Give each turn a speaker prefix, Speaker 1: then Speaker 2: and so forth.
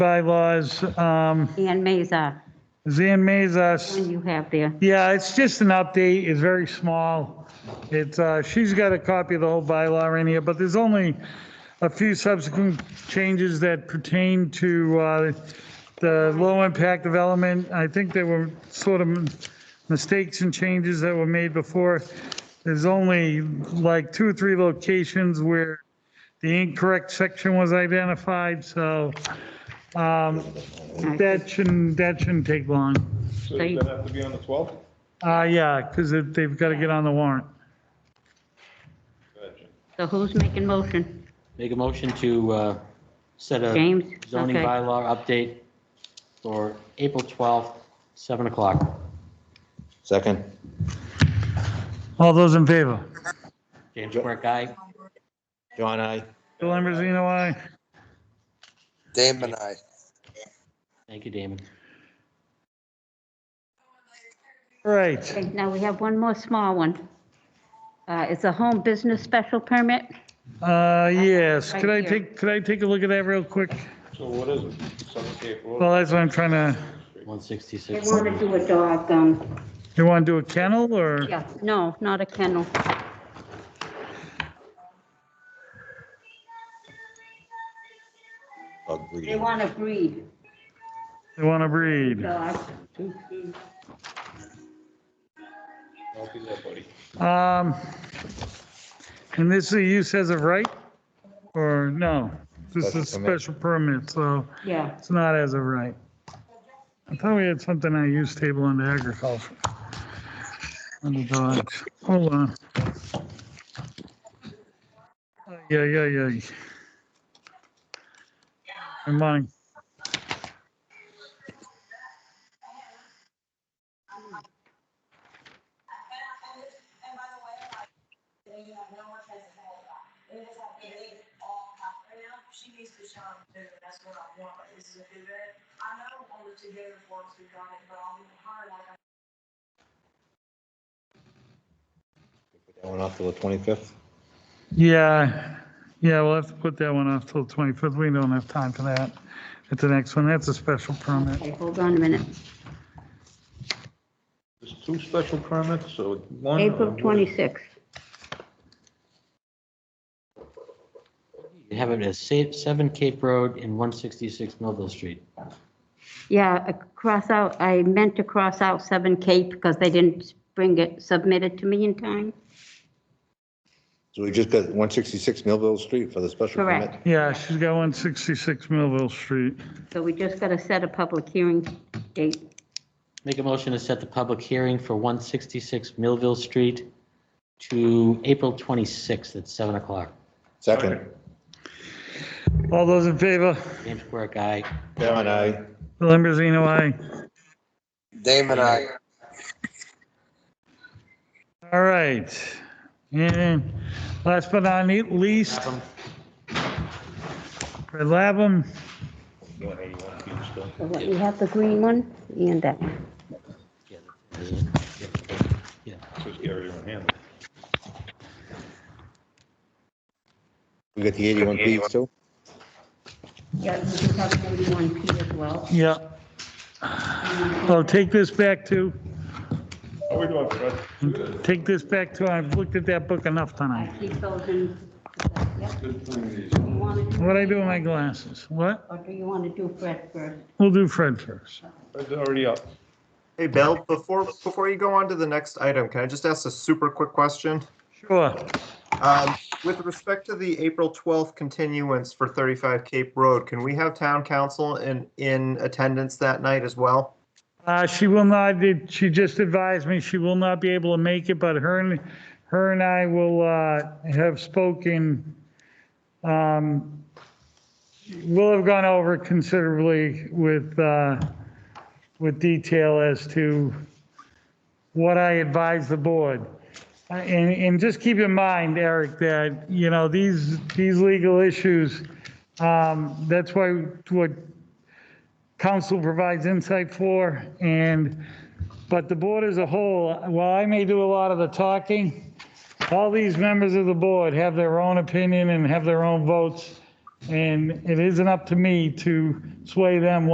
Speaker 1: bylaws. Um,
Speaker 2: And Mesa,
Speaker 1: Zan Mezas.
Speaker 2: you have there.
Speaker 1: Yeah, it's just an update. It's very small. It's, uh, she's got a copy of the whole bylaw in here, but there's only a few subsequent changes that pertain to, uh, the low impact development. I think there were sort of mistakes and changes that were made before. There's only like two or three locations where the incorrect section was identified, so, um, that shouldn't, that shouldn't take long.
Speaker 3: So
Speaker 2: So
Speaker 3: does
Speaker 2: you-
Speaker 3: that have to be on the 12th?
Speaker 1: Uh, yeah, because they've got to get on the warrant.
Speaker 3: Go ahead, Jim.
Speaker 2: So who's making motion?
Speaker 4: Make a motion to uh, set a
Speaker 2: James?
Speaker 4: zoning
Speaker 2: Okay.
Speaker 4: bylaw update for April 12th, 7 o'clock.
Speaker 5: Second.
Speaker 1: All those in favor?
Speaker 4: James Quirk, aye.
Speaker 5: John, I.
Speaker 1: Bill Ambrosino, aye.
Speaker 6: Damon and I.
Speaker 4: Thank you, Damon.
Speaker 1: All Right,
Speaker 2: Okay, Now we have one more small one. Uh, It's a home business special permit.
Speaker 1: uh, yes,
Speaker 2: Right
Speaker 1: could I
Speaker 2: here.
Speaker 1: take, could I take a look at that real quick?
Speaker 3: So what is it? Seventh April?
Speaker 1: Well, that's what I'm trying to,
Speaker 4: 166.
Speaker 2: They want to do a dog, um,
Speaker 1: you want to do a kennel or?
Speaker 2: yeah, no, not a kennel.
Speaker 5: Dog
Speaker 2: They
Speaker 5: breeding.
Speaker 2: want to breed
Speaker 1: They want to breed?
Speaker 2: dogs.
Speaker 3: Don't do that, buddy.
Speaker 1: Um, and this is a use as of right? Or no? This is
Speaker 5: Special permit.
Speaker 1: special permit, so
Speaker 2: Yeah,
Speaker 1: it's not as of right. I thought we had something on use table under agriculture. Under dogs, hold on. Yeah, yeah, yeah. Never mind.
Speaker 7: She needs to shine too, that's what I want, is to do that. I know only two other ones who done it, but I'm hard like I
Speaker 5: That one off till the 25th.
Speaker 1: Yeah, yeah, we'll have to put that one off till 25th. We don't have time for that. At the next one, that's a special permit.
Speaker 2: okay, hold on a minute.
Speaker 3: There's two special permits, so one.
Speaker 2: April 26th.
Speaker 4: You have it as sa- 7 Cape Road and 166 Millville Street.
Speaker 2: Yeah, I cross out, I meant to cross out 7 Cape because they didn't bring it, submit it to me in time.
Speaker 5: So we just got 166 Millville Street for the special permit.
Speaker 2: Correct.
Speaker 1: Yeah, she's got 166 Millville Street.
Speaker 2: So we just got to set a public hearing date.
Speaker 4: Make a motion to set the public hearing for 166 Millville Street to April 26th at 7 o'clock.
Speaker 5: Second.
Speaker 1: All those in favor?
Speaker 4: James Quirk, aye.
Speaker 5: John, I.
Speaker 1: Bill Ambrosino, aye.
Speaker 6: Damon and I.
Speaker 1: All right. And last but not ne- least,
Speaker 4: Clapham.
Speaker 1: Fred Labum.
Speaker 2: So what, you have the green one and that one.
Speaker 4: Yeah, that is it. Yeah.
Speaker 3: Just carry your own hand.
Speaker 5: We got the 81 feet too.
Speaker 2: Yeah, you just have 41 P as well.
Speaker 1: Yeah. I'll take this back to,
Speaker 3: How we doing, Fred? Good.
Speaker 1: take this back to, I've looked at that book enough
Speaker 2: I
Speaker 1: tonight.
Speaker 2: keep those in, yeah,
Speaker 3: Good
Speaker 2: you want to,
Speaker 1: What I do with my glasses? What?
Speaker 2: or do you want to do Fred first?
Speaker 1: We'll do Fred first.
Speaker 3: Fred's already up.
Speaker 8: Hey, Bill, before, before you go on to the next item, can I just ask a super quick question?
Speaker 1: Sure.
Speaker 8: Um, With respect to the April 12th continuance for 35 Cape Road, can we have town council in, in attendance that night as well?
Speaker 1: Uh, she will not, did- she just advised me she will not be able to make it, but her and, her and I will, uh, have spoken. Um, we'll have gone over considerably with, uh, with detail as to what I advise the board. Uh, And, and just keep in mind, Eric, that, you know, these, these legal issues, um, that's why, what council provides insight for, and, but the board as a whole, while I may do a lot of the talking, all these members of the board have their own opinion and have their own votes, And it isn't up to me to sway them